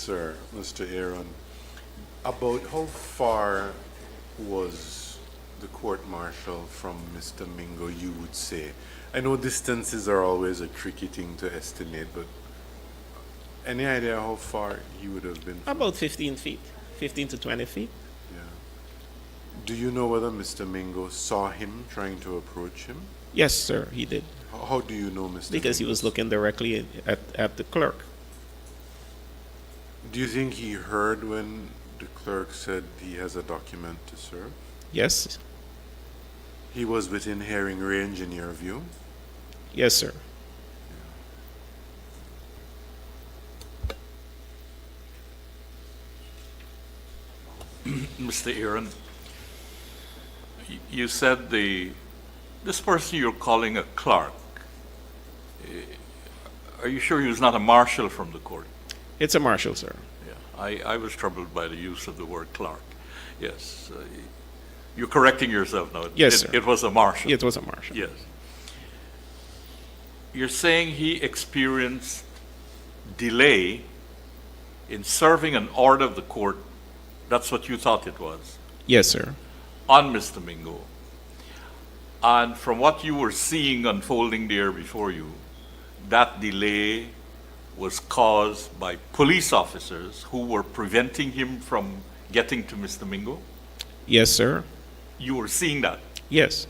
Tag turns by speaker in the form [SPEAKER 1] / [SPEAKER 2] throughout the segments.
[SPEAKER 1] Sir, Mr. Aaron, about how far was the court martial from Mr. Mingo, you would say? I know distances are always a tricky thing to estimate, but any idea how far you would have been? From,
[SPEAKER 2] About 15 feet, 15 to 20 feet.
[SPEAKER 1] yeah. Do you know whether Mr. Mingo saw him trying to approach him?
[SPEAKER 2] Yes, sir, he did.
[SPEAKER 1] How, how do you know Mr.
[SPEAKER 2] Because he
[SPEAKER 1] Mingo?
[SPEAKER 2] was looking directly at, at the clerk.
[SPEAKER 1] Do you think he heard when the clerk said he has a document to serve?
[SPEAKER 2] Yes?
[SPEAKER 1] He was within hearing range in your view?
[SPEAKER 2] Yes, sir.
[SPEAKER 3] Mr. Aaron, y- you said the, this person you're calling a clerk, eh, are you sure he was not a marshal from the court?
[SPEAKER 2] It's a marshal, sir.
[SPEAKER 3] Yeah, I, I was troubled by the use of the word clerk. Yes, uh, you're correcting yourself now.
[SPEAKER 2] Yes,
[SPEAKER 3] It-
[SPEAKER 2] sir.
[SPEAKER 3] It was a marshal.
[SPEAKER 2] It was a marshal.
[SPEAKER 3] Yes. You're saying he experienced delay in serving an order of the court, that's what you thought it was?
[SPEAKER 2] Yes, sir.
[SPEAKER 3] on Mr. Mingo. And from what you were seeing unfolding there before you, that delay was caused by police officers who were preventing him from getting to Mr. Mingo.
[SPEAKER 2] Yes, sir.
[SPEAKER 3] You were seeing that.
[SPEAKER 2] Yes.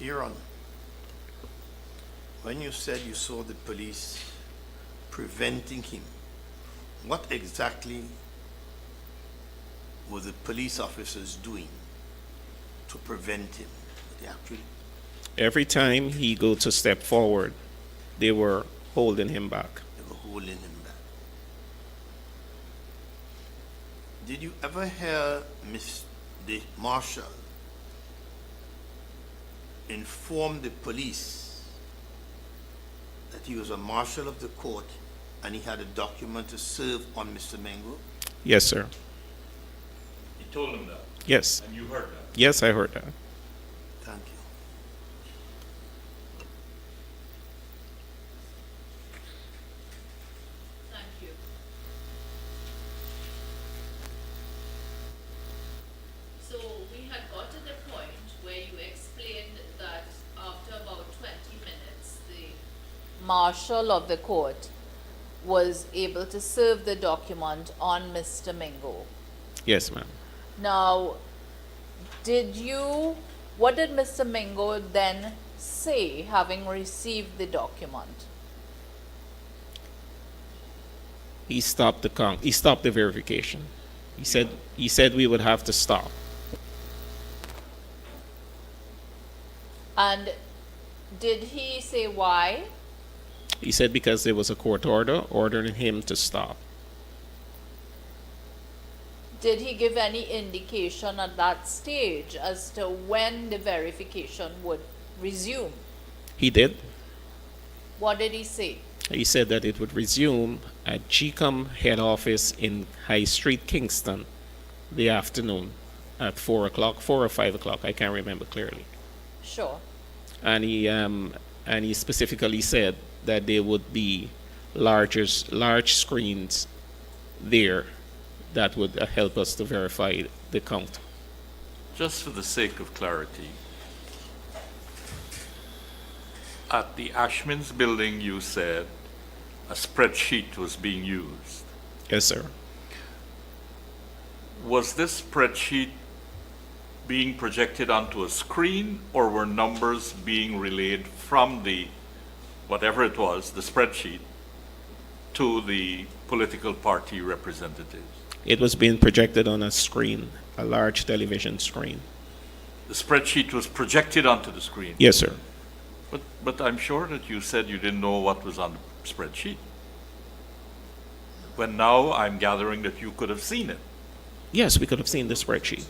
[SPEAKER 4] Aaron, when you said you saw the police preventing him, what exactly were the police officers doing to prevent him? They actually,
[SPEAKER 2] Every time he go to step forward, they were holding him back.
[SPEAKER 4] they were holding him back. Did you ever hear Miss the marshal inform the police that he was a marshal of the court and he had a document to serve on Mr. Mengo?
[SPEAKER 2] Yes, sir.
[SPEAKER 3] He told him that,
[SPEAKER 2] Yes.
[SPEAKER 3] and you heard that.
[SPEAKER 2] Yes, I heard that.
[SPEAKER 4] Thank you.
[SPEAKER 5] So we had got to the point where you explained that after about twenty minutes, the marshal of the court was able to serve the document on Mr. Mingo.
[SPEAKER 2] Yes, ma'am.
[SPEAKER 5] Now, did you, what did Mr. Mingo then say, having received the document?
[SPEAKER 2] He stopped the con, he stopped the verification. He said, he said we would have to stop.
[SPEAKER 5] And did he say why?
[SPEAKER 2] He said because there was a court order ordering him to stop.
[SPEAKER 5] Did he give any indication at that stage as to when the verification would resume?
[SPEAKER 2] He did.
[SPEAKER 5] What did he say?
[SPEAKER 2] He said that it would resume at GCOM head office in High Street, Kingston, the afternoon at 4 o'clock, 4 or 5 o'clock, I can't remember clearly.
[SPEAKER 5] Sure.
[SPEAKER 2] And he, um, and he specifically said that there would be larger, large screens there that would uh, help us to verify the count.
[SPEAKER 3] Just for the sake of clarity, at the Ashman's building, you said a spreadsheet was being used.
[SPEAKER 2] Yes, sir.
[SPEAKER 3] Was this spreadsheet being projected onto a screen, or were numbers being relayed from the, whatever it was, the spreadsheet, to the political party representatives?
[SPEAKER 2] It was being projected on a screen, a large television screen.
[SPEAKER 3] The spreadsheet was projected onto the screen.
[SPEAKER 2] Yes, sir.
[SPEAKER 3] But, but I'm sure that you said you didn't know what was on the spreadsheet. When now I'm gathering that you could have seen it.
[SPEAKER 2] Yes, we could have seen the spreadsheet.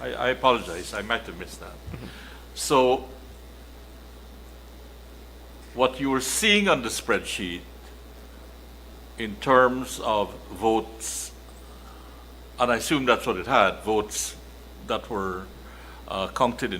[SPEAKER 3] I, I apologize, I might have missed that. So, what you were seeing on the spreadsheet in terms of votes, and I assume that's what it had, votes that were uh, come to the